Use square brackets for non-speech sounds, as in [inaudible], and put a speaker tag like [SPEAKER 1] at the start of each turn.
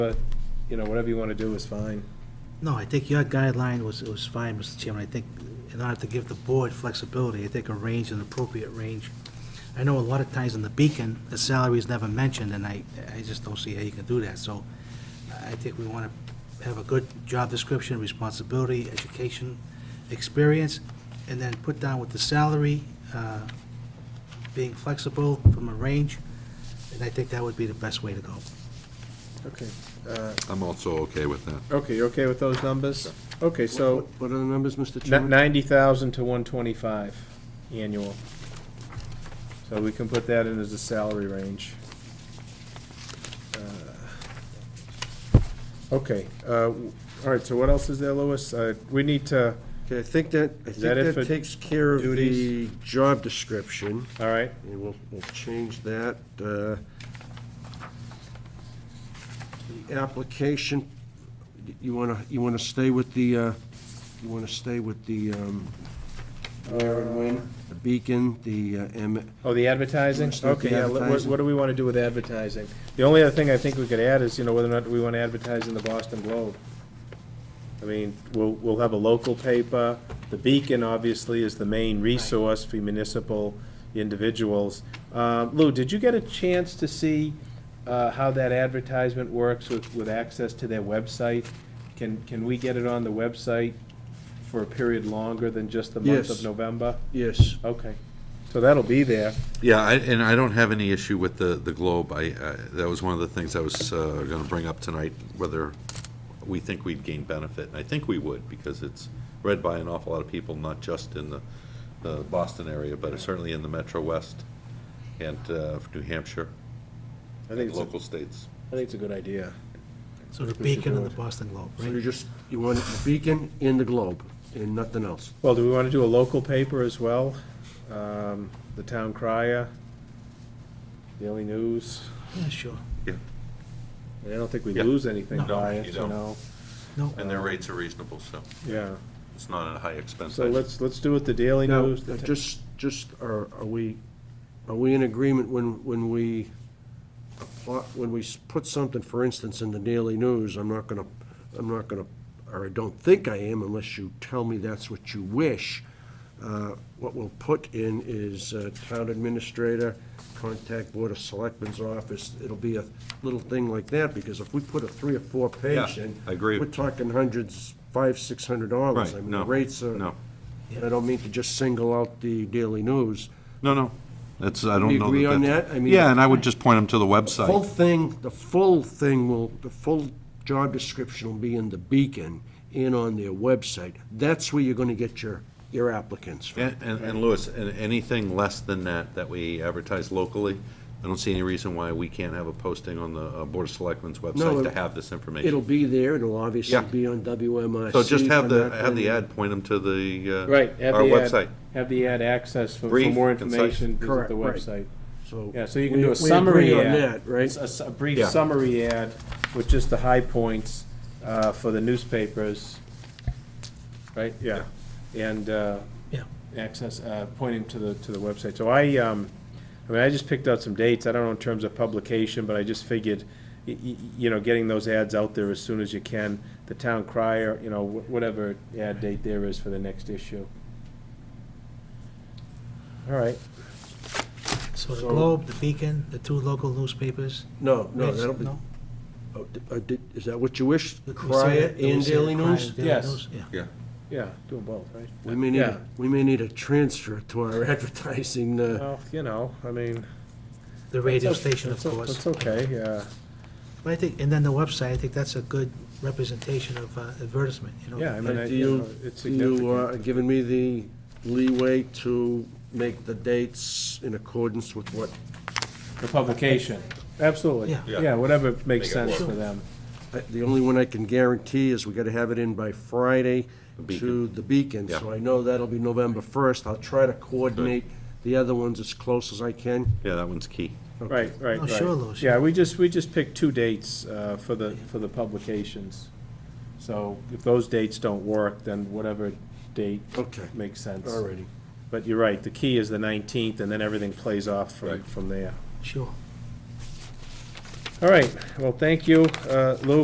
[SPEAKER 1] But, you know, whatever you want to do is fine.
[SPEAKER 2] No, I think your guideline was, was fine, Mr. Chairman. I think in order to give the board flexibility, I think a range, an appropriate range. I know a lot of times in the Beacon, the salary is never mentioned, and I, I just don't see how you can do that. So I think we want to have a good job description, responsibility, education, experience, and then put down with the salary, uh, being flexible from a range, and I think that would be the best way to go.
[SPEAKER 1] Okay.
[SPEAKER 3] I'm also okay with that.
[SPEAKER 1] Okay, you're okay with those numbers? Okay, so
[SPEAKER 4] What what are the numbers, Mr. Chairman?
[SPEAKER 1] ninety thousand to one twenty-five annual. So we can put that in as a salary range. Uh, Okay, uh, w- all right, so what else is there, Louis? Uh, We need to,
[SPEAKER 4] Okay, I think that, I
[SPEAKER 1] that it
[SPEAKER 4] think
[SPEAKER 1] for
[SPEAKER 4] that takes care of the
[SPEAKER 1] duties?
[SPEAKER 4] job description,
[SPEAKER 1] all right,
[SPEAKER 4] and we'll, we'll change that. uh, The application, you wanna, you wanna stay with the, uh, you wanna stay with the, um, where and when, the beacon, the, uh, M-
[SPEAKER 1] oh, the advertising?
[SPEAKER 4] Let's do
[SPEAKER 1] Okay,
[SPEAKER 4] the
[SPEAKER 1] yeah, let- what
[SPEAKER 4] advertising.
[SPEAKER 1] what do we want to do with advertising? The only other thing I think we could add is, you know, whether or not we want to advertise in the Boston Globe. I mean, we'll, we'll have a local paper. The Beacon, obviously, is the main resource for municipal individuals. Uh, Lou, did you get a chance to see uh, how that advertisement works with, with access to their website? Can, can we get it on the website for a period longer than just the month of
[SPEAKER 4] Yes.
[SPEAKER 1] November?
[SPEAKER 4] yes.
[SPEAKER 1] Okay, so that'll be there.
[SPEAKER 3] Yeah, I- and I don't have any issue with the, the Globe. I, I- that was one of the things I was uh, gonna bring up tonight, whether we think we'd gain benefit. And I think we would, because it's read by an awful lot of people, not just in the, the Boston area, but certainly in the Metro West and uh, New Hampshire
[SPEAKER 1] I think
[SPEAKER 3] and
[SPEAKER 1] it's, a-
[SPEAKER 3] local states.
[SPEAKER 1] I think it's a good idea.
[SPEAKER 2] So the
[SPEAKER 1] We should
[SPEAKER 2] Beacon
[SPEAKER 1] do
[SPEAKER 2] and the
[SPEAKER 1] it.
[SPEAKER 2] Boston Globe,
[SPEAKER 4] So
[SPEAKER 2] right?
[SPEAKER 4] you just, you want the beacon in the globe, and nothing else.
[SPEAKER 1] Well, do we want to do a local paper as well? Um, The Town Crier, Daily News?
[SPEAKER 2] Yeah, sure.
[SPEAKER 1] I don't think we
[SPEAKER 3] Yeah.
[SPEAKER 1] lose anything
[SPEAKER 2] No,
[SPEAKER 1] by
[SPEAKER 3] you
[SPEAKER 1] it, you
[SPEAKER 3] don't.
[SPEAKER 1] know?
[SPEAKER 2] No.
[SPEAKER 3] And their rates are reasonable, so
[SPEAKER 1] Yeah,
[SPEAKER 3] it's not a high expense.
[SPEAKER 1] so let's, let's do it the Daily
[SPEAKER 4] Now,
[SPEAKER 1] News. the
[SPEAKER 4] uh,
[SPEAKER 1] Ta-
[SPEAKER 4] just, just, are, are we, are we in agreement when, when we, apply- when we s- put something, for instance, in the Daily News, I'm not gonna, I'm not gonna, or I don't think I am unless you tell me that's what you wish. Uh, What we'll put in is uh, town administrator, contact Board of Selectmen's office. It'll be a little thing like that, because if we put a three or four page
[SPEAKER 3] Yeah,
[SPEAKER 4] in.
[SPEAKER 3] I agree.
[SPEAKER 4] We're talking hundreds, five, six hundred dollars.
[SPEAKER 3] Right,
[SPEAKER 4] I mean,
[SPEAKER 3] no,
[SPEAKER 4] the rates are.
[SPEAKER 3] no.
[SPEAKER 4] And I don't mean to just single out the Daily News.
[SPEAKER 3] No, no, that's, I don't know.
[SPEAKER 4] We agree on
[SPEAKER 3] that's-
[SPEAKER 4] that? I mean-
[SPEAKER 3] Yeah, and I would just point them to the website.
[SPEAKER 4] Full thing, the full thing will, the full job description will be in the Beacon and on their website. That's where you're gonna get your, your applicants from.
[SPEAKER 3] And, and- and Louis, and anything less than that, that we advertise locally, I don't see any reason why we can't have a posting on the uh, Board of Selectmen's website
[SPEAKER 4] it-
[SPEAKER 3] to have this information.
[SPEAKER 4] It'll be there, it'll obviously
[SPEAKER 3] Yeah.
[SPEAKER 4] be on WMIC.
[SPEAKER 3] So just have the,
[SPEAKER 4] for that
[SPEAKER 3] have the
[SPEAKER 4] thing.
[SPEAKER 3] ad point them to the, uh,
[SPEAKER 1] Right, have
[SPEAKER 3] our
[SPEAKER 1] the ad-
[SPEAKER 3] website.
[SPEAKER 1] Have the ad access for, for
[SPEAKER 3] Brief,
[SPEAKER 1] more
[SPEAKER 3] concise.
[SPEAKER 1] information, visit
[SPEAKER 4] Correct,
[SPEAKER 1] the
[SPEAKER 4] right.
[SPEAKER 1] website.
[SPEAKER 4] So.
[SPEAKER 1] Yeah, so you can
[SPEAKER 4] we-
[SPEAKER 1] do
[SPEAKER 4] we
[SPEAKER 1] a summary
[SPEAKER 4] agree on
[SPEAKER 1] ad.
[SPEAKER 4] that, Right?
[SPEAKER 1] s- A, s- a brief
[SPEAKER 3] Yeah.
[SPEAKER 1] summary ad with just the high points uh, for the newspapers, right? Yeah. And uh,
[SPEAKER 2] Yeah.
[SPEAKER 1] access, uh, pointing to the, to the website. So I, um, I mean, I just picked out some dates. I don't know in terms of publication, but I just figured, y- y- you know, getting those ads out there as soon as you can. The town crier, you know, wh- whatever ad date there is for the next issue. All right.
[SPEAKER 2] So the
[SPEAKER 1] So-
[SPEAKER 2] Globe, the Beacon, the two local newspapers.
[SPEAKER 4] No, no,
[SPEAKER 2] Right,
[SPEAKER 4] that'll be, oh, di- uh, di- is that what you wish?
[SPEAKER 2] We said-
[SPEAKER 4] Crier
[SPEAKER 2] we
[SPEAKER 4] and
[SPEAKER 2] said
[SPEAKER 4] Daily
[SPEAKER 2] Crier
[SPEAKER 4] News?
[SPEAKER 2] and Daily
[SPEAKER 1] Yes.
[SPEAKER 2] News, yeah.
[SPEAKER 3] Yeah.
[SPEAKER 1] Yeah, do them both, right?
[SPEAKER 4] We may need,
[SPEAKER 1] Yeah.
[SPEAKER 4] a- we may need a transfer to our [laughs] advertising, uh.
[SPEAKER 1] Well, you know, I mean.
[SPEAKER 2] The radio
[SPEAKER 1] that's o-
[SPEAKER 2] station, of
[SPEAKER 1] that's o-
[SPEAKER 2] course.
[SPEAKER 1] That's okay, yeah.
[SPEAKER 2] But I think, and then the website, I think that's a good representation of uh, advertisement, you know?
[SPEAKER 1] Yeah, I mean, I-
[SPEAKER 4] And do
[SPEAKER 1] you know,
[SPEAKER 4] you,
[SPEAKER 1] it's
[SPEAKER 4] do you
[SPEAKER 1] significant.
[SPEAKER 4] are giving me the leeway to make the dates in accordance with what,
[SPEAKER 1] The publication. Absolutely.
[SPEAKER 2] Yeah.
[SPEAKER 3] Yeah.
[SPEAKER 1] Yeah, whatever makes
[SPEAKER 3] Make it
[SPEAKER 1] sense
[SPEAKER 3] work.
[SPEAKER 1] for them.
[SPEAKER 4] I- the only one I can guarantee is we gotta have it in by Friday to
[SPEAKER 3] Beacon.
[SPEAKER 4] the Beacon.
[SPEAKER 3] Yeah.
[SPEAKER 4] So I know that'll be November first. I'll try to coordinate the other ones as close as I can.
[SPEAKER 3] Yeah, that one's key.
[SPEAKER 1] Right, right,
[SPEAKER 2] Oh,
[SPEAKER 1] right.
[SPEAKER 2] sure, Louis,
[SPEAKER 1] Yeah, we just, we just picked two dates uh, for the, for the publications. So if those dates don't work, then whatever date
[SPEAKER 4] Okay,
[SPEAKER 1] makes sense.
[SPEAKER 4] alrighty.
[SPEAKER 1] But you're right, the key is the 19th, and then everything plays off from,
[SPEAKER 3] Right.
[SPEAKER 1] from there.
[SPEAKER 2] Sure.
[SPEAKER 1] All right, well, thank you, uh, Lou,